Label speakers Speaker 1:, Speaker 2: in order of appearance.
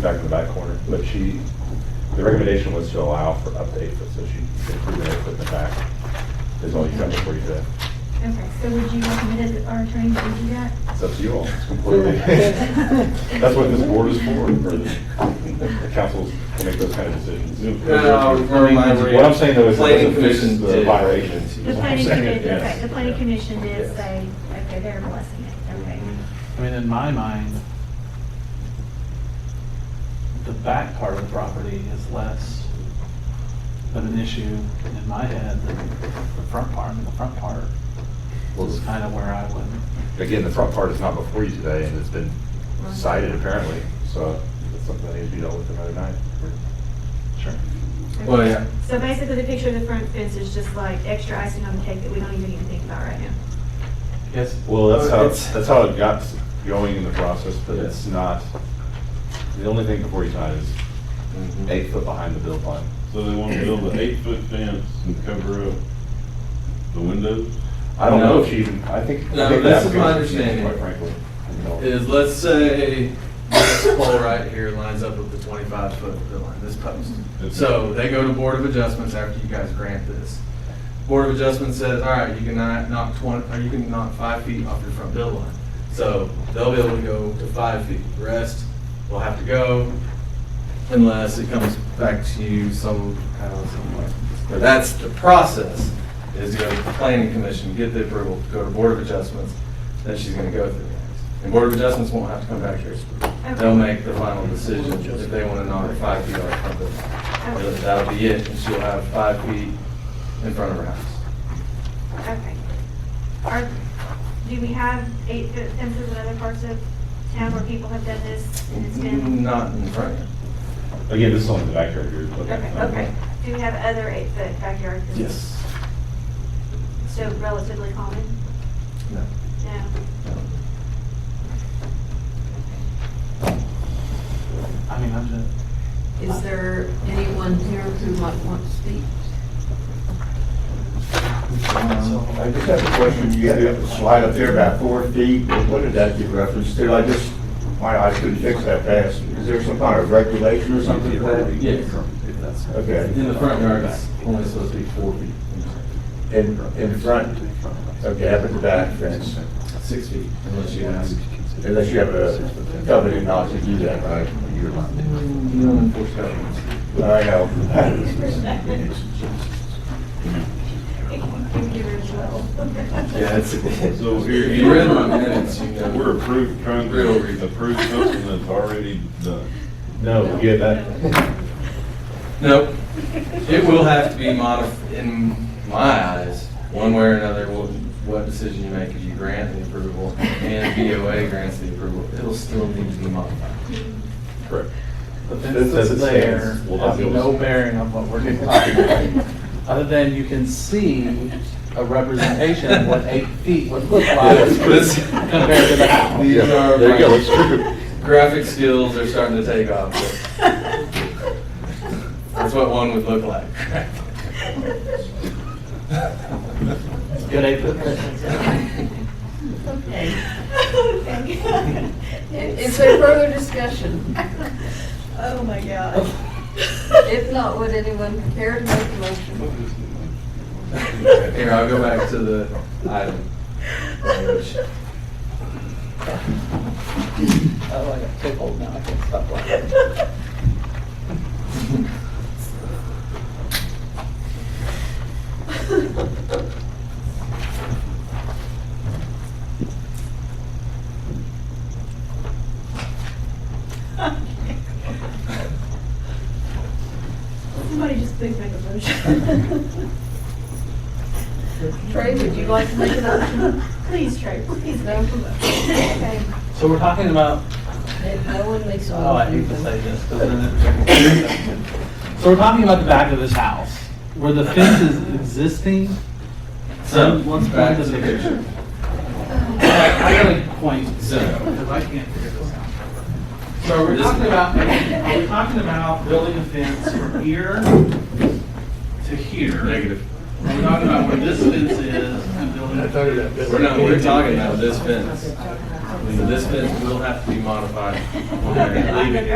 Speaker 1: back in the back corner, but she, the recommendation was to allow for up to eight foot, so she included eight foot in the back. Is all you got before you do that.
Speaker 2: Okay, so would you recommend it, our attorney, to do that?
Speaker 1: It's up to you all. It's completely. That's what this board is for, for the, the councils to make those kind of decisions.
Speaker 3: No, never mind.
Speaker 1: What I'm saying though is it doesn't fix
Speaker 3: Planning commission
Speaker 1: the
Speaker 3: did.
Speaker 1: violations.
Speaker 2: The planning
Speaker 1: Second,
Speaker 2: commission,
Speaker 1: yes.
Speaker 2: okay, the planning commission did
Speaker 1: Yes.
Speaker 2: say, okay, they're blessing it, okay.
Speaker 4: I mean, in my mind, the back part of the property is less of an issue in my head than the front part. I mean, the front part
Speaker 5: Well,
Speaker 4: is kind of where I would,
Speaker 5: Again, the front part is not before you today, and it's been cited apparently.
Speaker 1: So it's something that needs to be dealt with another night.
Speaker 4: sure.
Speaker 3: Well, yeah.
Speaker 2: So basically, the picture of the front fence is just like extra icing on the cake that we don't even need to think about right now.
Speaker 4: Yes,
Speaker 1: Well, that's how,
Speaker 3: Oh, It's-
Speaker 1: that's how it got going in the process, but it's not, the only thing before you tonight is eight foot behind the build line.
Speaker 6: So they want to build an eight-foot fence and cover up the windows?
Speaker 1: I don't know
Speaker 3: No.
Speaker 1: if she even, I think. I
Speaker 3: No,
Speaker 1: think
Speaker 3: this
Speaker 1: the
Speaker 3: is my
Speaker 1: application's
Speaker 3: understanding.
Speaker 1: Quite frankly. you know.
Speaker 3: Is, let's say, this pole right here lines up with the twenty-five foot of the line, this post. So they go to Board of Adjustments after you guys grant this. Board of Adjustments says, all right, you can knock- knock twenty, or you can knock five feet off your front build line. So they'll be able to go to five feet. The rest will have to go unless it comes back to you somehow, somewhere. But that's the process, is you go to the planning commission, get the approval, go to Board of Adjustments, then she's gonna go through that. And Board of Adjustments won't have to come back here. They'll make the final decision if they wanna knock five feet off front build line.
Speaker 2: Okay,
Speaker 3: That'll be it, and she'll have five feet in front of her house.
Speaker 2: okay. Are, do we have eight foot fences in other parts of town where people have done this and it's been?
Speaker 3: Mm, Not in front of you.
Speaker 1: Again, this is only the backyard here. but- um,
Speaker 2: Okay, okay. Do we have other eight foot backyard fences? So relatively common?
Speaker 3: No.
Speaker 2: No.
Speaker 4: I mean, I'm just,
Speaker 7: Is there anyone here who might want to speak?
Speaker 8: Um, I just have a question, you have a slide up there about four feet, what did that give reference to? I just, my eyes couldn't fix that fast. Is there some kind of regulation or something for that?
Speaker 3: Yes.
Speaker 8: Okay,
Speaker 3: In the front yard, it's only supposed to be four feet,
Speaker 8: in, in front, okay, up at the back fence,
Speaker 3: six feet, unless you ask.
Speaker 8: unless you have a covenant not to do that, right?
Speaker 3: No enforced covenants.
Speaker 8: I know.
Speaker 3: Yeah, it's.
Speaker 6: So here,
Speaker 3: If you read my minutes, you know.
Speaker 6: we're approved, trying to approve something that's already done.
Speaker 1: No, yeah, that,
Speaker 3: Nope. It will have to be modified, in my eyes, one way or another, what, what decision you make, if you grant the approval and BOA grants the approval, it'll still need to be modified.
Speaker 1: correct.
Speaker 4: the
Speaker 1: This
Speaker 4: fence
Speaker 1: says
Speaker 4: that's
Speaker 1: it
Speaker 4: there
Speaker 1: stands. We'll not
Speaker 4: has
Speaker 1: be able to-
Speaker 4: no bearing on what we're talking about. Other than you can see a representation of what eight feet would look like
Speaker 3: This-
Speaker 4: compared to that.
Speaker 3: These are
Speaker 5: There you go,
Speaker 3: my-
Speaker 5: it's true.
Speaker 3: Graphic skills are starting to take off. That's what one would look like.
Speaker 4: Good eight foot fence.
Speaker 7: Is there further discussion?
Speaker 2: Oh, my God.
Speaker 7: If not, would anyone care to make a motion?
Speaker 3: Here, I'll go back to the item. language.
Speaker 4: Oh, I got tickled now, I can't stop laughing.
Speaker 2: Somebody just please make a motion.
Speaker 7: Trey, would you like to make a motion?
Speaker 2: Please, Trey, please.
Speaker 7: No? Okay.
Speaker 4: So we're talking about,
Speaker 7: If no one makes a motion.
Speaker 4: oh, I hate to say this, because then it. So we're talking about the back of this house, where the fence is existing.
Speaker 3: So,
Speaker 4: So let's
Speaker 3: back
Speaker 4: back to
Speaker 3: to
Speaker 4: the
Speaker 3: the
Speaker 4: picture. I gotta point,
Speaker 3: So-
Speaker 4: because I can't figure this out. So we're talking about, we're talking about building a fence from here to here.
Speaker 3: Negative.
Speaker 4: We're talking about where this fence is and building. a fence.
Speaker 3: We're not, we're talking about this fence. So this fence will have to be modified. We're not gonna leave it here.